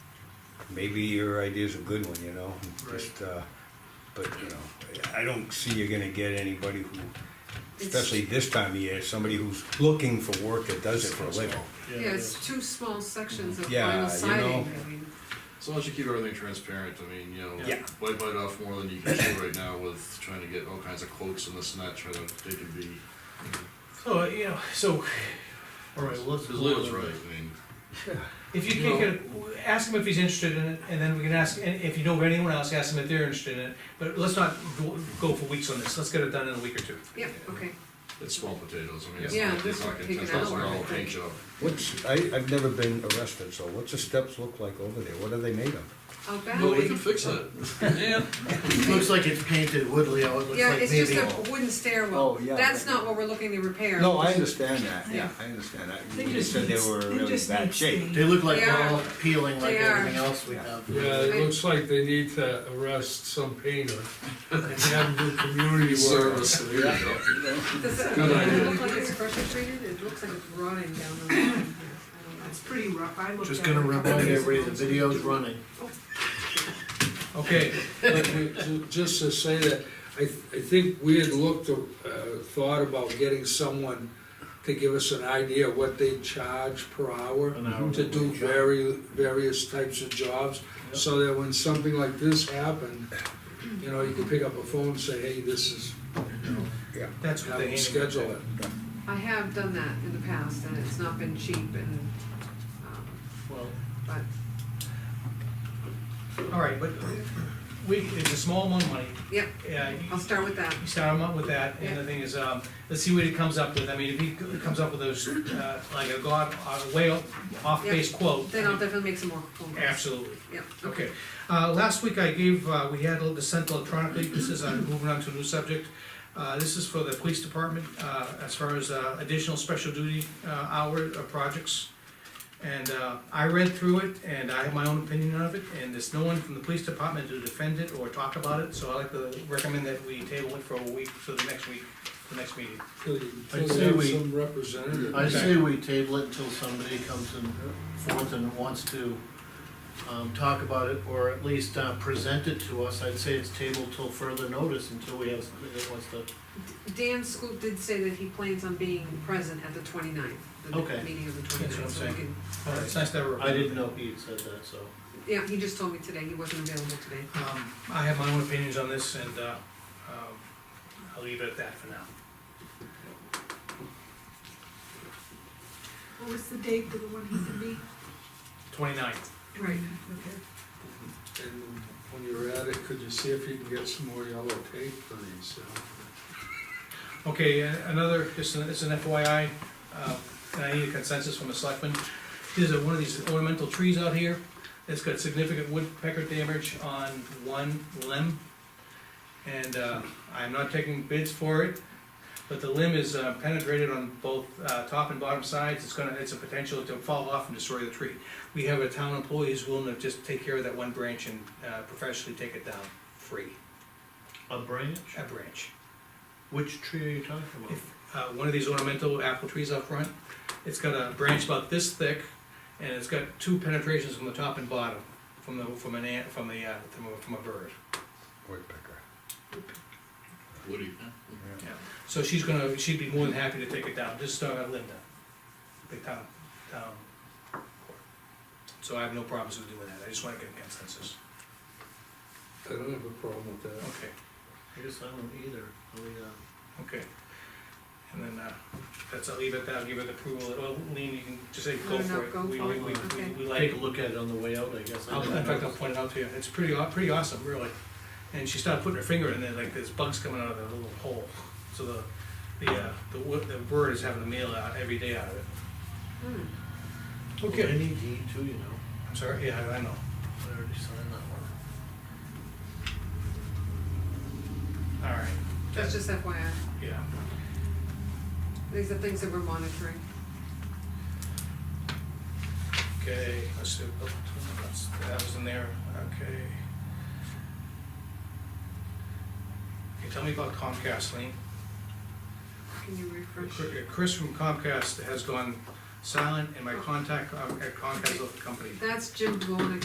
maybe your idea's a good one, you know? Right. Just, uh, but, you know, I don't see you're gonna get anybody who, It's- especially this time of year, somebody who's looking for work that does it for a living. Yeah, it's two small sections of Yeah, vinyl you siding, know. I mean, As long as you keep everything transparent, I mean, you know, Yeah. bite bite off more than you can chew right now with trying to get all kinds of quotes and this and that, trying to, they can be, Oh, you know, so, all right, well, let's. because Leo's right, I mean, If you can't get, ask him if he's interested in it, and then we can ask, and if you know of anyone else, ask them if they're interested in it. But let's not go- go for weeks on this, let's get it done in a week or two. yeah, okay. it's small potatoes, I mean, it's Yeah, not, this it's not would gonna take ten an thousand hour, I dollar think. paint job. What's, I, I've never been arrested, so what's the steps look like over there? What are they made of? Out back, No, we can fix it, yeah, Looks like it's painted wood, Leo, it looks yeah, like it's just maybe. a wooden stairwell, Oh, yeah. that's not what we're looking to repair. No, I understand that, yeah, I understand that. They You just said they need- were they really just bad need shape. stain. They look like They they're are. all peeling like They are. everything else we have. Yeah, it Right. looks like they need to arrest some painter and have them do community work. service, there you go. Does it, Good does it idea. look like it's pressure treated, it looks like it's rotting down the line, yeah, I don't know. It's pretty rough, I looked at it. Just gonna remind everybody, the video's running. Okay, but we- ju- just to say that, I, th- I think we had looked, uh, thought about getting someone to give us an idea of what they charge per hour An hour to do would be good. vari- various types of jobs, so that when something like this happened, you know, you can pick up a phone and say, hey, this is, That's what they have them aim at. schedule it. I have done that in the past, and it's not been cheap, and, um, Well, but, all right, but we, it's a small amount of money. yeah, Yeah, you- I'll start with that. you start him up with that, and the thing is, um, let's see what he comes up with, I mean, if he c- comes up with those, uh, like a god, a way off base quote. Then I'll definitely make some more phone calls. Absolutely. Yeah, okay. Okay, uh, last week I gave, uh, we had the sent electronically, this is, uh, moving on to a new subject. Uh, this is for the police department, uh, as far as, uh, additional special duty, uh, hour, uh, projects. And, uh, I read through it, and I have my own opinion of it, and there's no one from the police department to defend it or talk about it, so I like to recommend that we table it for a week, for the next week, the next meeting. Till you- till I'd you say have we- some representative. I say we table it until somebody comes in forth and wants to, um, talk about it, or at least, uh, present it to us. I'd say it's tabled till further notice, until we have somebody that wants to, Dan Scoop did say that he plans on being present at the 29th. the Okay. meeting of the That's what I'm 29th, so we saying. can, Uh, It's nice to have a. I didn't know he had said that, so. yeah, he just told me today, he wasn't available today. Um, I have my own opinions on this, and, uh, um, I'll leave it at that for now. What was the date for the one he can be? Twenty-ninth. Right. Okay. And when you're at it, could you see if you can get some more yellow tape for these? uh, Okay, uh, another, just an, it's an FYI, uh, and I need a consensus from the selectmen. There's a, one of these ornamental trees out here that's got significant woodpecker damage on one limb. And, uh, I'm not taking bids for it, but the limb is uh, penetrated on both, uh, top and bottom sides. It's gonna, it's a potential to fall off and destroy the tree. We have a town employee who's willing to just take care of that one branch and, uh, professionally take it down, free, A branch? a branch. Which tree are you talking about? If, uh, one of these ornamental apple trees out front, it's got a branch about this thick, and it's got two penetrations from the top and bottom, from the, from an ant, from the, uh, from a, from a bird. Woodpecker. Woody, So she's gonna, she'd be more than happy to take it down, just, uh, Linda, the town, town. clerk. So I have no problems with doing that, I just wanna get a consensus, I don't have a problem with that. okay, I guess I don't either. Are we, uh, okay. And then, uh, that's, I'll leave it at that, I'll give it approval, well, Lean, you can just say, No, go no, for it, go we, for we, it. we, Okay. we- we like. Take a look at it on the way out, I guess. I I'll, don't in fact, know. I'll point it out to you, it's pretty, aw- pretty awesome, really. And she started putting her finger in there, like there's bugs coming out of that little hole. So the, the, uh, the, wo- the bird is having a meal out every day out of it. Hmm. Well, Any deed too, you know, I'm sorry, yeah, I- I know. I already signed that one. All right, That's just FYI, yeah. these are things that we're monitoring. Okay, let's see, oh, that's- that was in there, okay. Okay, tell me about Comcast, Lean. Can you refresh? Chris from Comcast has gone silent, and my contact uh, at Comcast left the company. That's Jim Volnick